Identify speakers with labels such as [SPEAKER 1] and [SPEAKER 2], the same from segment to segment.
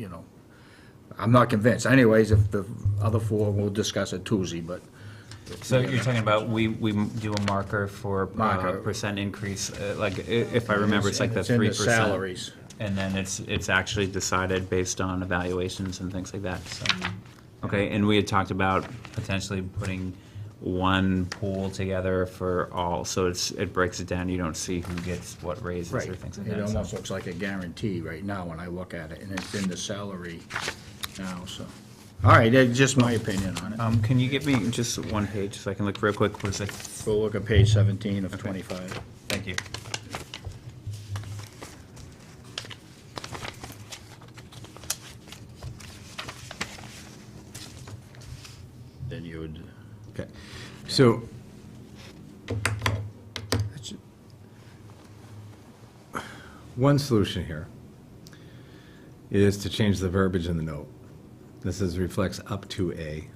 [SPEAKER 1] you know, I'm not convinced. Anyways, if the other four, we'll discuss it Tuesday, but
[SPEAKER 2] So you're talking about we, we do a marker for uh,
[SPEAKER 1] Marker.
[SPEAKER 2] percent increase, uh, like, i- if I remember, it's like the
[SPEAKER 1] It's in
[SPEAKER 2] three
[SPEAKER 1] the
[SPEAKER 2] percent.
[SPEAKER 1] salaries.
[SPEAKER 2] And then it's, it's actually decided based on evaluations and things like that, so.
[SPEAKER 1] Mm-hmm.
[SPEAKER 2] Okay, and we had talked about potentially putting one pool together for all, so it's, it breaks it down, you don't see who gets what raises or things like
[SPEAKER 1] It
[SPEAKER 2] that. so.
[SPEAKER 1] almost looks like a guarantee right now when I look at it, and it's in the salary now, so. All right, that's just my opinion on it.
[SPEAKER 2] Um, can you give me just one page, so I can look real quick, what is it?
[SPEAKER 1] We'll look at page 17 of 25.
[SPEAKER 2] Thank you.
[SPEAKER 1] Then you would,
[SPEAKER 3] Okay, so. One solution here is to change the verbiage in the note. This is, reflects up to a.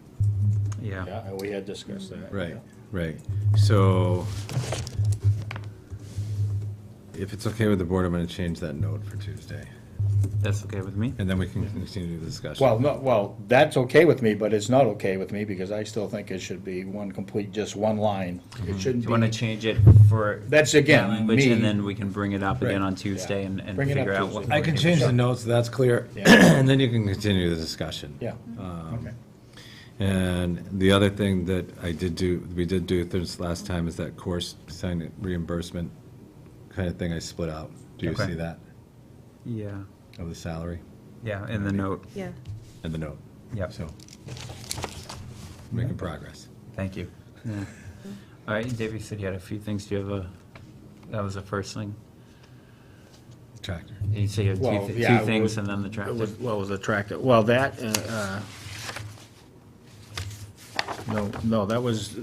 [SPEAKER 2] Yeah,
[SPEAKER 1] yeah, we had discussed that.
[SPEAKER 3] Right, right. So if it's okay with the board, I'm gonna change that note for Tuesday.
[SPEAKER 2] that's okay with me.
[SPEAKER 3] And then we can continue the discussion.
[SPEAKER 1] Well, no, well, that's okay with me, but it's not okay with me, because I still think it should be one complete, just one line. It shouldn't
[SPEAKER 2] Mm-hmm. Do you want to
[SPEAKER 1] be,
[SPEAKER 2] change it for?
[SPEAKER 1] That's again,
[SPEAKER 2] that language, And
[SPEAKER 1] me.
[SPEAKER 2] then we can bring it up again
[SPEAKER 3] Right.
[SPEAKER 2] on Tuesday and, and
[SPEAKER 1] Bring it up
[SPEAKER 2] figure out what.
[SPEAKER 1] Tuesday.
[SPEAKER 3] I can change the note, so that's clear,
[SPEAKER 1] Yeah.
[SPEAKER 3] and then you can continue the discussion.
[SPEAKER 1] yeah,
[SPEAKER 2] Um,
[SPEAKER 1] okay.
[SPEAKER 3] And the other thing that I did do, we did do this last time is that course sign reimbursement kind of thing I split out. Do you
[SPEAKER 2] Okay.
[SPEAKER 3] see that?
[SPEAKER 2] Yeah,
[SPEAKER 3] Of the salary
[SPEAKER 2] yeah, in the note.
[SPEAKER 4] Yeah,
[SPEAKER 3] and the note.
[SPEAKER 2] Yep.
[SPEAKER 3] So, making progress.
[SPEAKER 2] Thank you. Yeah. All right, Dave, you said you had a few things. Do you have a, that was the first thing?
[SPEAKER 3] Tractor.
[SPEAKER 2] You said you had
[SPEAKER 1] Well,
[SPEAKER 2] two, thi-
[SPEAKER 1] yeah,
[SPEAKER 2] two
[SPEAKER 1] it
[SPEAKER 2] things
[SPEAKER 1] was-
[SPEAKER 2] and then the
[SPEAKER 1] It was-
[SPEAKER 2] tractor.
[SPEAKER 1] What was attractive? Well, that, uh, uh, no, no, that was, uh,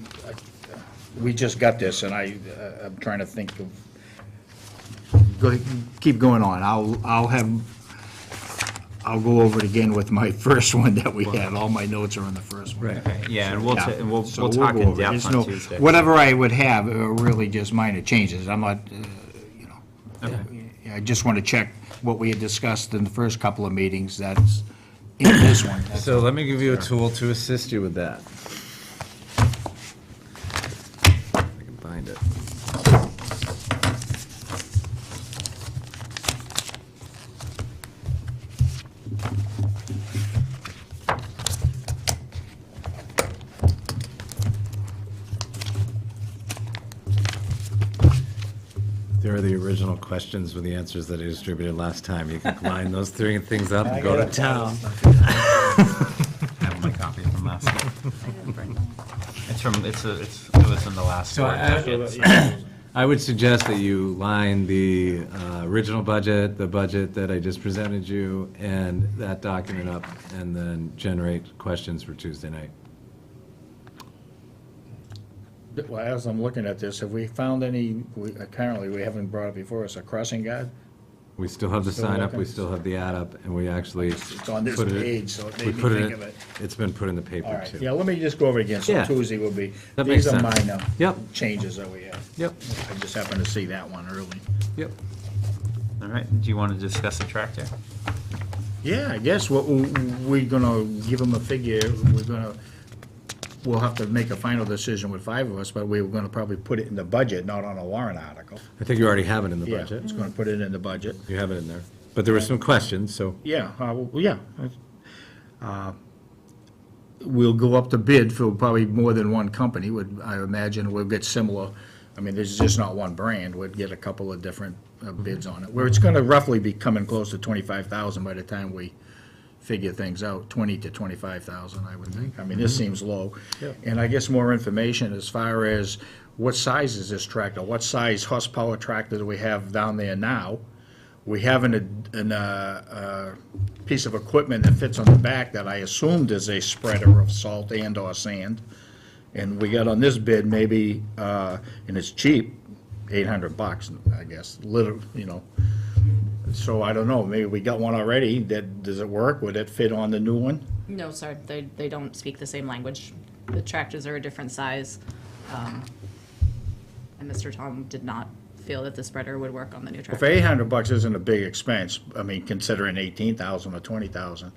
[SPEAKER 1] we just got this, and I, uh, I'm trying to think of, go, keep going on. I'll, I'll have, I'll go over it again with my first one that we had. All my notes are on the first one.
[SPEAKER 2] Okay, Yeah, and we'll, ta- and we'll,
[SPEAKER 1] So
[SPEAKER 2] we'll talk
[SPEAKER 1] go
[SPEAKER 2] in
[SPEAKER 1] over it. There's
[SPEAKER 2] depth
[SPEAKER 1] no-
[SPEAKER 2] on Tuesday.
[SPEAKER 1] Whatever I would have are really just minor changes. I'm not, uh, you know,
[SPEAKER 2] Okay.
[SPEAKER 1] I just want to check what we had discussed in the first couple of meetings that's in this one. That's-
[SPEAKER 3] So let me give you a tool to assist you with that. I can find it. There are the original questions with the answers that I distributed last time. You can combine those three things up and go to town.
[SPEAKER 2] I have my copy from last night. It's from, it's, a- it's, it was in the last.
[SPEAKER 3] So
[SPEAKER 2] board
[SPEAKER 3] I-
[SPEAKER 2] packet, so-
[SPEAKER 3] I would suggest that you line the uh, original budget, the budget that I just presented you, and that document up, and then generate questions for Tuesday night.
[SPEAKER 1] Well, as I'm looking at this, have we found any, we- apparently, we haven't brought it before, us a crossing guard?
[SPEAKER 3] We still have the
[SPEAKER 1] Still
[SPEAKER 3] sign up, we
[SPEAKER 1] looking.
[SPEAKER 3] still have the add up, and we actually.
[SPEAKER 1] It's on this
[SPEAKER 3] put it-
[SPEAKER 1] page, so it made
[SPEAKER 3] we
[SPEAKER 1] me
[SPEAKER 3] put
[SPEAKER 1] think
[SPEAKER 3] in-
[SPEAKER 1] of it.
[SPEAKER 3] It's been put in the
[SPEAKER 1] All
[SPEAKER 3] paper
[SPEAKER 1] right, yeah,
[SPEAKER 3] too.
[SPEAKER 1] let me just go over it again, so
[SPEAKER 3] Yeah.
[SPEAKER 1] Tuesday will be,
[SPEAKER 3] That
[SPEAKER 1] these
[SPEAKER 3] makes
[SPEAKER 1] are
[SPEAKER 3] sense.
[SPEAKER 1] minor
[SPEAKER 3] Yep.
[SPEAKER 1] changes that we have.
[SPEAKER 3] Yep,
[SPEAKER 1] I just happened to see that one early.
[SPEAKER 3] yep.
[SPEAKER 2] All right, do you want to discuss the tractor?
[SPEAKER 1] Yeah, I guess what, we're gonna give them a figure, we're gonna, we'll have to make a final decision with five of us, but we were gonna probably put it in the budget, not on a warrant article.
[SPEAKER 3] I think you already have it in the
[SPEAKER 1] Yeah,
[SPEAKER 3] budget.
[SPEAKER 1] it's gonna put it in the budget.
[SPEAKER 3] You have it in there. But there were some questions, so
[SPEAKER 1] Yeah, uh, well, yeah. Uh, We'll go up to bid for probably more than one company, would, I imagine we'll get similar. I mean, there's just not one brand, we'd get a couple of different uh, bids on it, where it's gonna roughly be coming close to twenty-five thousand by the time we figure things out, twenty to twenty-five thousand, I would think. I mean, this seems low. And I guess more information as far as what size is this tractor? What size horsepower tractor do we have down there now? We have an, an, uh, uh, piece of equipment that fits on the back that I assumed is a spreader of salt and or sand. And we got on this bid maybe, uh, and it's cheap, eight hundred bucks, I guess, little, you know. So I don't know, maybe we got one already, that, does it work? Would it fit on the new one?
[SPEAKER 4] no, sorry, they, they don't speak the same language. The tractors are a different size. um, And Mr. Tom did not feel that the spreader would work on the new tractor.
[SPEAKER 1] If eight hundred bucks isn't a big expense, I mean, considering eighteen thousand or twenty thousand,